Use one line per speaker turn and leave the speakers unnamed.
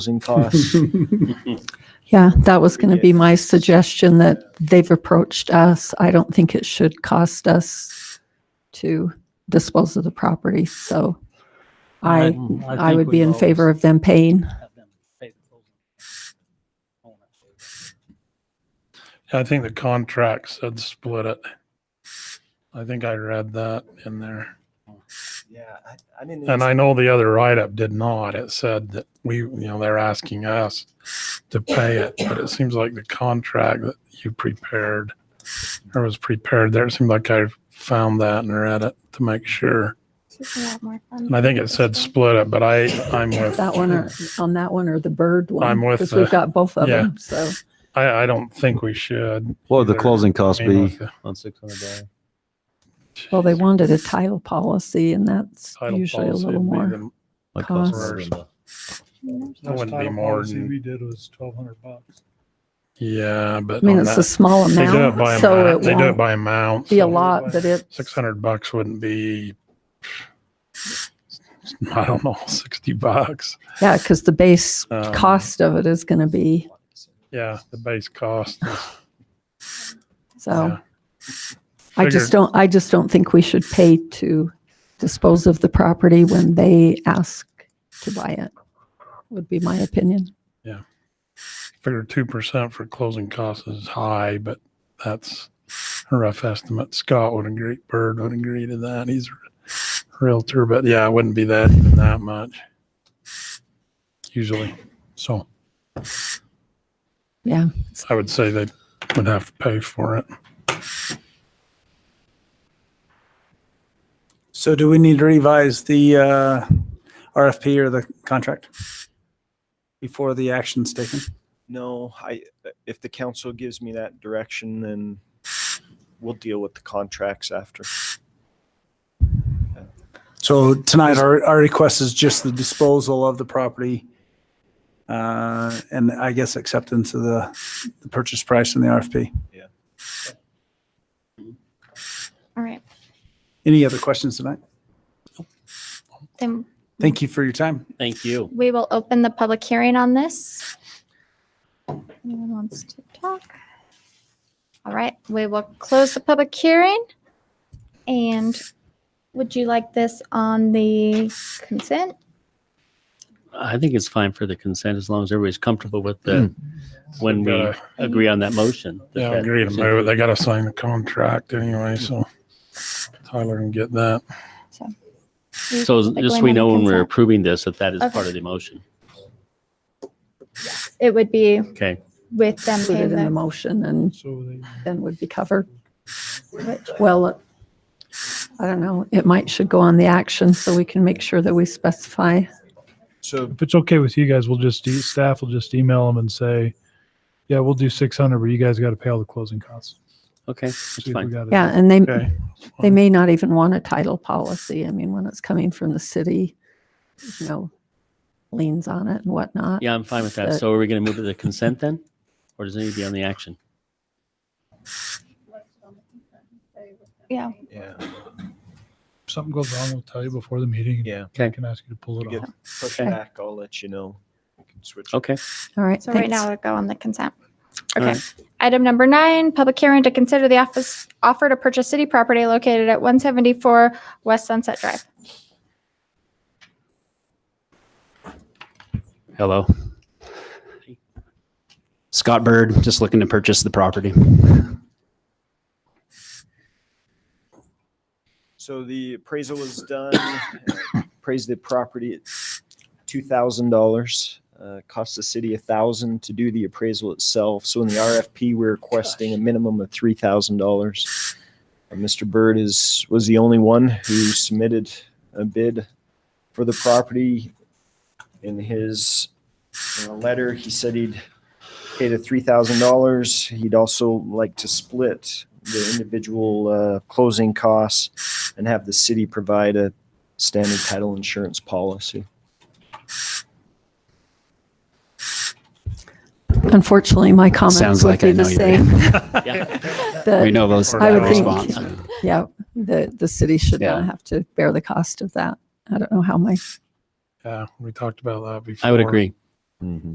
housing costs.
Yeah, that was going to be my suggestion that they've approached us. I don't think it should cost us to dispose of the property. So I, I would be in favor of them paying.
I think the contract said split it. I think I read that in there.
Yeah, I, I didn't.
And I know the other write-up did not. It said that we, you know, they're asking us to pay it, but it seems like the contract that you prepared or was prepared there, it seemed like I found that and read it to make sure.
This is a lot more fun.
And I think it said split it, but I, I'm with.
That one or, on that one or the bird one.
I'm with
Because we've
the-
got both of
yeah.
them, so.
I, I don't think we should.
What would the
either.
closing cost
I mean,
be
with the
on six hundred dollars?
Well, they wanted a title policy and that's
title
usually a
policy,
little
it'd be
more.
the-
Like
Cost.
It wouldn't be more than,
We did was twelve hundred bucks.
yeah,
I
but.
mean,
on
it's
that-
a small
They do it by
amount, so
amount, they
it
do it
won't
by amount.
be a lot, but it,
Six hundred bucks wouldn't be, I don't know, sixty bucks.
yeah, because the base
Um,
cost of it is going to be,
Yeah, the base cost. is-
so.
yeah.
I
Figured-
just don't, I just don't think we should pay to dispose of the property when they ask to buy it, would be my opinion.
Figure two percent for closing costs is high, but that's a rough estimate. Scott would agree, Bird would agree to that. He's a realtor, but yeah, it wouldn't be that, even that much. Usually, so
Yeah,
I would say they would have to pay for it.
So do we need to revise the uh, RFP or the contract before the action's taken?
No, I, if the council gives me that direction, then we'll deal with the contracts after.
So tonight, our, our request is just the disposal of the property uh, and I guess acceptance of the, the purchase price and the RFP.
All right.
Any other questions tonight?
Then
Thank you for your time.
Thank you.
we will open the public hearing on this. Anyone wants to talk? All right, we will close the public hearing. And would you like this on the consent?
I think it's fine for the consent as long as everybody's comfortable with the, when we
Gotta-
agree on that motion. that
Hmm. Yeah, I
that
agree to
consent-
move it. They gotta sign the contract anyway, so Tyler can get that.
So
Like
just
going
we
on the
know when we're
consent?
approving this, that that is
Okay.
part of the motion.
It would be
Okay.
with them
put it
paying
in the
the,
motion and
So they
then would be covered. Well, I don't know, it might should go on the action so we can make sure that we specify.
So,
if it's okay with you guys, we'll just e- staff will just email them and say, yeah, we'll do six hundred, but you guys got to pay all the closing costs.
Okay. That's
See if we
fine.
got it.
Yeah, and they,
Okay.
they may not even want a title policy. I mean, when it's coming from the city, you know, liens on it and whatnot.
Yeah, I'm fine with that.
But-
So are we going to move it to the consent then? Or does it need to be on the action?
yeah,
yeah,
If something goes wrong, we'll tell you before the meeting.
yeah,
I can ask you to pull
if
it
you
off.
get pushed
Okay.
back, I'll let you know. We can switch.
Okay.
All right,
so right
thanks.
now it'll go on the consent.
All
Okay.
right.
Item number nine, public hearing to consider the office offer to purchase city property located at 174 West Sunset Drive.
Hello. Scott Bird, just looking to purchase the property.
So the appraisal was done, uh, appraised the property at two thousand dollars. Uh, cost the city a thousand to do the appraisal itself. So in the RFP, we're requesting a minimum of three thousand dollars. Mr. Bird is, was the only one who submitted a bid for the property. In his uh, letter, he said he'd pay the three thousand dollars. He'd also like to split the individual, uh, closing costs and have the city provide a standard title insurance policy.
Unfortunately, my comments
Sounds
would
like I
be the
know
same.
you.
Yeah.
that-
We know those.
I
that
would think-
response.
Yeah, the, the city should not
Yeah.
have to bear the cost of that. I don't know how my,
Yeah, we talked about that before.
I would agree.
Mhm.